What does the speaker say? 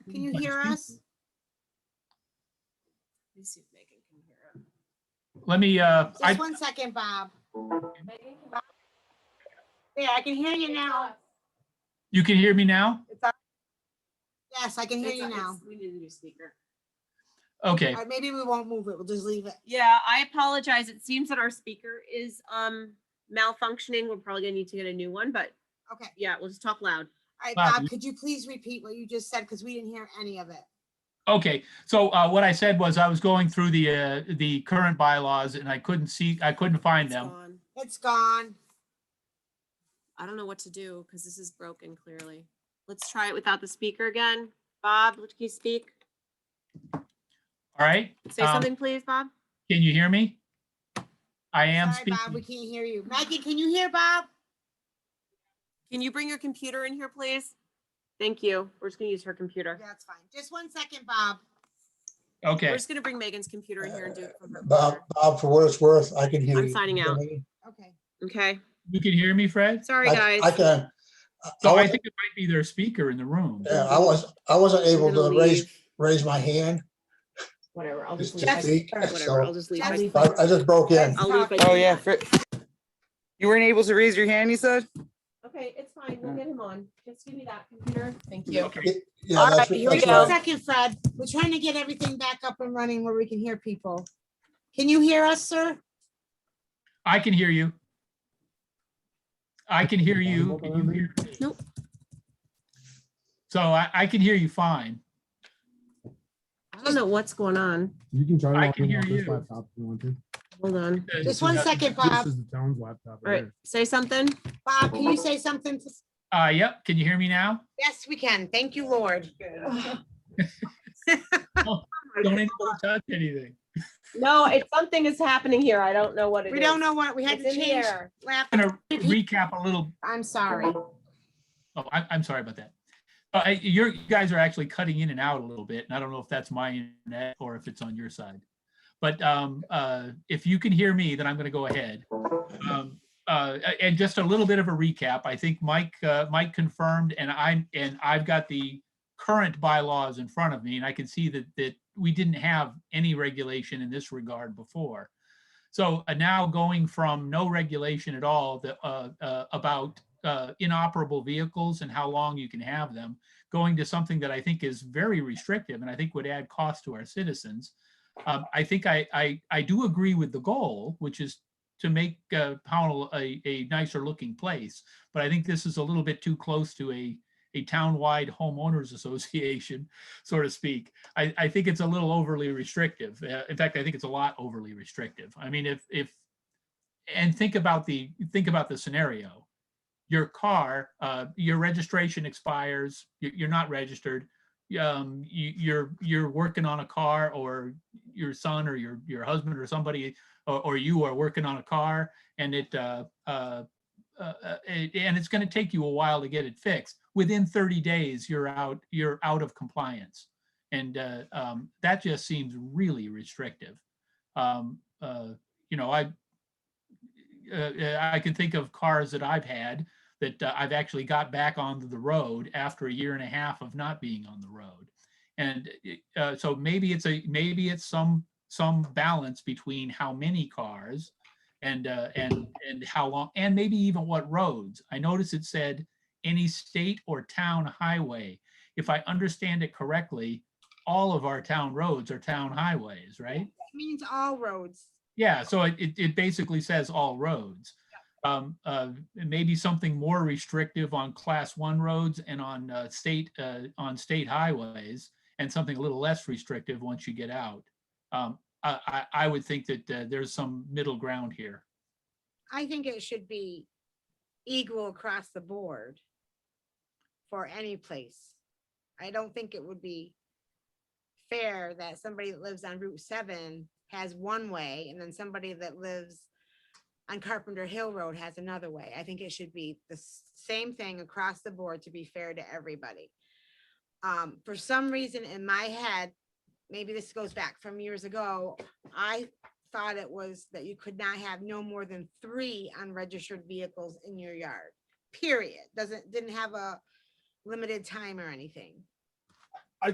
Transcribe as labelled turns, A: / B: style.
A: Can you hear us?
B: Let me see if Megan can hear
C: Let me, uh, I,
A: Just one second, Bob. Yeah, I can hear you now.
C: you can hear me now?
A: Yes, I can
B: it.
A: hear
B: It's-
A: you now.
B: it's- We need a new speaker.
C: Okay,
A: All right, maybe we won't move it. We'll just leave it.
B: Yeah, I apologize. It seems that our speaker is um malfunctioning. We're probably gonna need to get a new one, but
A: Okay.
B: yeah, we'll just talk loud.
A: All right,
C: Bob,
A: Bob,
C: you-
A: could you please repeat what you just said? Because we didn't hear any of it.
C: okay. So, uh, what I said was I was going through the, uh, the current bylaws and I couldn't see, I couldn't find
B: It's
C: them.
B: gone.
A: It's gone.
B: I don't know what to do because this is broken clearly. Let's try it without the speaker again. Bob, can you speak?
C: All right?
B: Say
C: Um,
B: something, please, Bob.
C: Can you hear me? I am
A: Sorry, Bob, we
C: speaking.
A: can't hear you. Maggie, can you hear Bob?
B: Can you bring your computer in here, please? Thank you. We're just gonna use her computer.
A: That's fine. Just one second, Bob.
C: Okay,
B: We're just gonna bring Megan's computer in here and do it from her.
D: Bob,
B: computer.
D: Bob, for what it's worth, I can hear you.
B: I'm signing out.
A: Okay.
B: Okay,
C: you can hear me, Fred?
B: sorry,
D: I
B: guys.
D: I can. I- I
C: So I
D: wasn't-
C: think it might be their speaker in the room.
D: yeah, I was, I wasn't
B: I'm
D: able
B: gonna
D: to raise,
B: leave.
D: raise my hand.
B: Whatever, I'll
D: Just
B: just
D: to
B: leave. I-
D: speak,
B: Whatever, I'll
D: so
B: just leave.
A: That's-
B: I-
D: I, I just broke in.
B: I'll leave.
E: Oh,
B: I-
E: yeah. Fer- You weren't able to raise your hand, you said?
B: Okay, it's fine. We'll get him on. Just give me that computer. Thank you.
C: Okay.
D: It- Yeah,
E: All
D: that's,
E: right, here we
A: Just
D: that's
A: a
E: go.
D: right.
A: second, Fred. We're trying to get everything back up and running where we can hear people. Can you hear us, sir?
C: I can hear you. I can hear you. Can you hear me?
B: Nope.
C: So I, I can hear you fine.
B: I don't know what's going on.
F: You can try to
C: I
F: log
C: can
F: in
C: hear
F: off this
C: you.
F: laptop if you want to.
B: Hold on.
A: Just one second, Bob.
F: This is the town's laptop.
B: All right, say something.
A: Bob, can you say something? to-
C: Uh, yep, can you hear me now?
A: Yes, we can. Thank you, Lord.
C: Don't anybody touch anything.
B: No, it's, something is happening here. I don't know what it is.
A: We don't know what, we had
B: It's
A: to
B: in the
A: change.
B: air.
A: laugh-
C: I'm gonna recap a little,
A: I'm sorry.
C: oh, I, I'm sorry about that. Uh, I- you're, you guys are actually cutting in and out a little bit, and I don't know if that's my internet or if it's on your side. But, um, uh, if you can hear me, then I'm gonna go ahead. Um, uh, a- and just a little bit of a recap, I think Mike, uh, Mike confirmed, and I, and I've got the current bylaws in front of me, and I can see that, that we didn't have any regulation in this regard before. So uh, now going from no regulation at all the, uh, uh, about uh, inoperable vehicles and how long you can have them, going to something that I think is very restrictive and I think would add cost to our citizens. Um, I think I, I, I do agree with the goal, which is to make uh, Pownell a, a nicer looking place. But I think this is a little bit too close to a, a townwide homeowners association, so to speak. I, I think it's a little overly restrictive. Uh, in fact, I think it's a lot overly restrictive. I mean, if, if, and think about the, think about the scenario. Your car, uh, your registration expires, you, you're not registered. Um, you, you're, you're working on a car or your son or your, your husband or somebody, or, or you are working on a car and it, uh, uh, uh, uh, it- and it's gonna take you a while to get it fixed. Within thirty days, you're out, you're out of compliance. And uh, um, that just seems really restrictive. Um, uh, you know, I uh, uh, I can think of cars that I've had that uh, I've actually got back onto the road after a year and a half of not being on the road. And it- uh, so maybe it's a maybe it's some some balance between how many cars and uh, and and how long and maybe even what roads. I noticed it said any state or town highway if I understand it correctly, all of our town roads are town highways, right?
A: It means all roads.
C: Yeah, so it, it, it basically says all roads. Um, uh, maybe something more restrictive on class one roads and on, uh, state, uh, on state highways. And something a little less restrictive once you get out. Um, I, I, I would think that, uh, there's some middle ground here.
A: I think it should be equal across the board for any place. I don't think it would be fair that somebody that lives on Route seven has one way and then somebody that lives on Carpenter Hill Road has another way. I think it should be the s- same thing across the board to be fair to everybody. Um, for some reason in my head, maybe this goes back from years ago, I thought it was that you could not have no more than three unregistered vehicles in your yard, period. Doesn't, didn't have a limited time or anything.